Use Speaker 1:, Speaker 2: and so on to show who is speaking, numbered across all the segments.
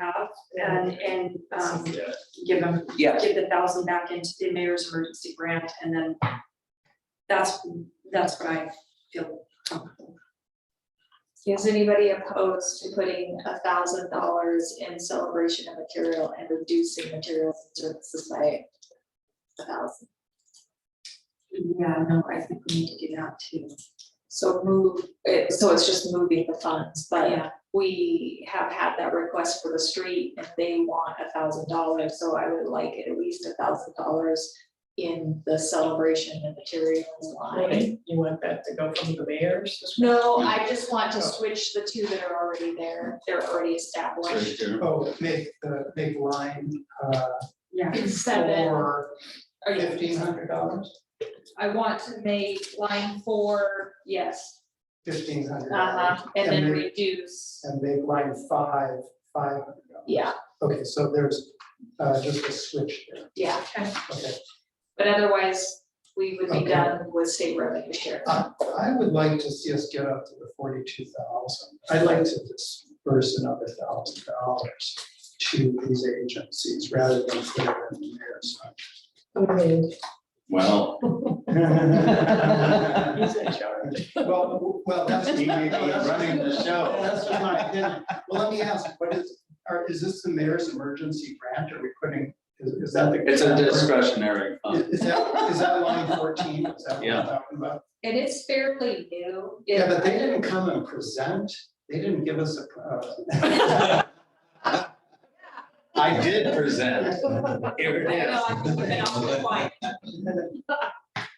Speaker 1: have and, and, um, give them,
Speaker 2: Yeah.
Speaker 1: give the thousand back into the mayor's emergency grant and then that's, that's what I feel comfortable.
Speaker 3: Is anybody opposed to putting a thousand dollars in celebration of material and reducing materials and services by a thousand?
Speaker 1: Yeah, no, I think we need to do that too.
Speaker 3: So move, it, so it's just moving the funds, but
Speaker 1: Yeah.
Speaker 3: we have had that request for the street and they want a thousand dollars, so I would like at least a thousand dollars in the celebration and materials line.
Speaker 4: You want that to go from the mayor's?
Speaker 3: No, I just want
Speaker 5: Oh.
Speaker 3: to switch the two that are already there, they're already established.
Speaker 5: Oh, make the big line, uh,
Speaker 1: Yeah,
Speaker 3: Seven,
Speaker 5: for
Speaker 3: are you-
Speaker 5: fifteen hundred dollars,
Speaker 3: I want to make line four, yes,
Speaker 5: fifteen hundred dollars.
Speaker 3: uh-huh, and then
Speaker 5: And then-
Speaker 3: reduce,
Speaker 5: And make line five, five hundred dollars.
Speaker 3: yeah,
Speaker 5: Okay, so there's, uh, just a switch there,
Speaker 3: yeah,
Speaker 5: okay.
Speaker 3: but otherwise, we would be
Speaker 5: Okay.
Speaker 3: done with state revenue share.
Speaker 5: Uh, I would like to see us get up to the forty-two thousand. I'd like to disperse another thousand dollars to these agencies rather than put it in the mayor's.
Speaker 6: Well,
Speaker 5: fund.
Speaker 4: He's in charge.
Speaker 5: Well, w- well, that's.
Speaker 6: He may be running the show.
Speaker 5: That's just my opinion. Well, let me ask, what is, are, is this the mayor's emergency grant? Are we putting, is, is that the?
Speaker 6: it's a discretionary
Speaker 5: Is
Speaker 6: fund.
Speaker 5: is that, is that line fourteen? Is that what
Speaker 6: Yeah.
Speaker 5: we're talking about?
Speaker 3: And it's fairly new.
Speaker 5: Yeah, but they didn't come and present. They didn't give us a. uh,
Speaker 6: I did present. Here
Speaker 3: I know, I'm keeping it on the line.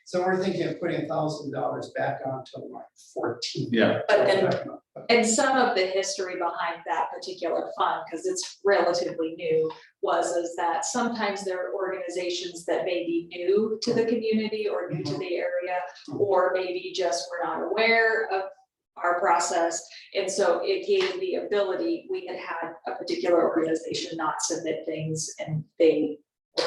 Speaker 5: So we're thinking of putting thousand dollars back onto line fourteen.
Speaker 6: Yeah.
Speaker 1: But then-
Speaker 3: And some of the history behind that particular fund, because it's relatively new, was is that sometimes there are organizations that may be new to the community or new to the area, or maybe just were not aware of our process. And so it gave the ability, we had had a particular organization not submit things and they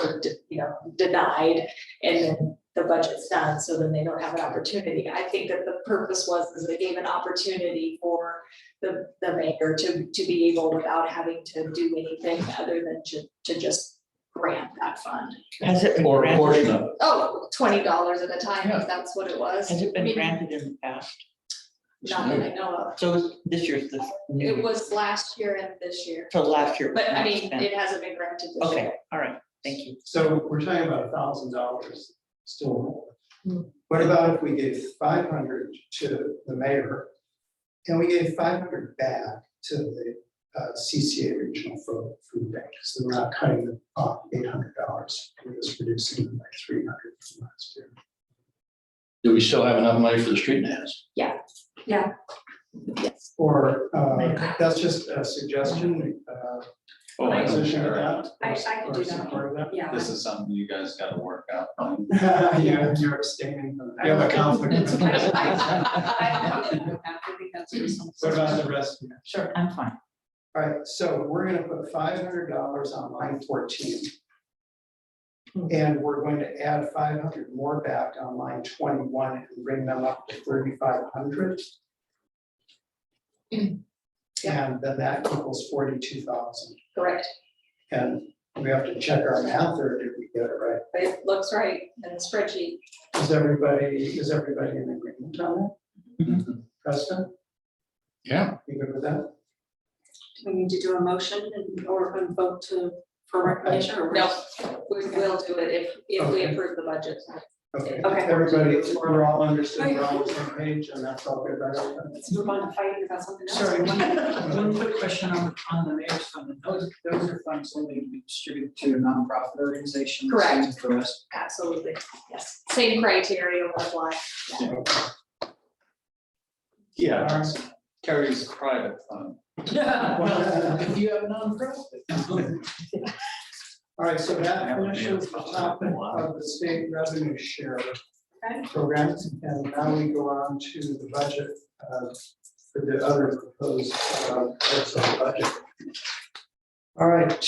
Speaker 3: were, de- you know, denied. And then the budget's done, so then they don't have an opportunity. I think that the purpose was, is it gave an opportunity for the, the maker to, to be able, without having to do anything other than to, to just grant that fund.
Speaker 4: Has it been
Speaker 6: Or a portion
Speaker 4: granted,
Speaker 6: of it.
Speaker 3: Oh, twenty dollars at a time,
Speaker 4: Yeah.
Speaker 3: if that's what it was.
Speaker 4: has it
Speaker 3: I
Speaker 4: been
Speaker 3: mean,
Speaker 4: granted in the past?
Speaker 3: Not that I know of.
Speaker 4: So this year's the
Speaker 3: It
Speaker 4: new,
Speaker 3: was last year and this year,
Speaker 4: so last year. was
Speaker 3: but I
Speaker 4: not
Speaker 3: mean,
Speaker 4: spent.
Speaker 3: it hasn't been granted this year.
Speaker 4: Okay, all right, thank you.
Speaker 5: So we're talking about thousand dollars still. more.
Speaker 4: Hmm.
Speaker 5: What about if we gave five hundred to the mayor? And we gave five hundred back to the uh, CCA Regional Fo- Food Bank, so we're not cutting them off eight hundred dollars, we're just reducing them by three hundred from last year.
Speaker 6: Do we still have enough money for the street nets?
Speaker 3: Yes.
Speaker 5: Or, uh, that's just a suggestion, uh,
Speaker 6: Oh, I don't
Speaker 5: opposition to
Speaker 6: care.
Speaker 5: that.
Speaker 1: I- I
Speaker 5: or-
Speaker 1: could
Speaker 5: or
Speaker 1: do that.
Speaker 5: support of that?
Speaker 1: yeah.
Speaker 6: This is something you guys gotta work out.
Speaker 5: Yeah, you're abstaining, from that. you have a conflict. of
Speaker 1: I
Speaker 5: interest.
Speaker 1: don't have to do that. I think that's reasonable.
Speaker 5: What about the rest? of you?
Speaker 4: Sure. I'm fine.
Speaker 5: All right, so we're gonna put five hundred dollars on line fourteen. And we're going to add five hundred more back on line twenty-one and bring them up to thirty-five hundred. And then that equals forty-two thousand.
Speaker 3: Correct,
Speaker 5: And we have to check our math or did we get it right?
Speaker 3: but it looks right in the spreadsheet.
Speaker 5: Is everybody, is everybody in agreement on that? Preston,
Speaker 6: Yeah.
Speaker 5: you good with that?
Speaker 1: We need to do a motion and, or a vote to, for recognition or?
Speaker 3: No, we will do it if, if we
Speaker 5: Okay.
Speaker 3: approve the budget.
Speaker 5: Okay,
Speaker 1: Okay.
Speaker 5: everybody, we're all understood, we're all on the same page and that's all good, right?
Speaker 1: Let's move on to fighting about something else.
Speaker 7: Sorry, one, one quick question on, on the mayor's fund, those, those are funds only to be distributed to nonprofit organizations.
Speaker 3: Correct.
Speaker 7: and For us,
Speaker 3: Absolutely, yes. Same criteria will apply.
Speaker 6: Yeah, Terry's private fund.
Speaker 7: well, if you have nonprofit.
Speaker 5: All right, so that
Speaker 6: Have a
Speaker 5: finishes the topic of the state revenue share
Speaker 1: Okay.
Speaker 5: program. And now we go on to the budget uh, for the other proposed uh, parts of the budget. All right,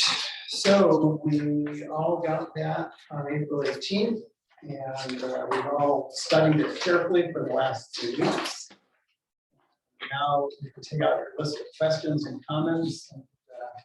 Speaker 5: so we all got that on April eighteenth. And uh, we've all studied it carefully for the last two weeks. Now, you can take out your list of questions and comments. and, uh,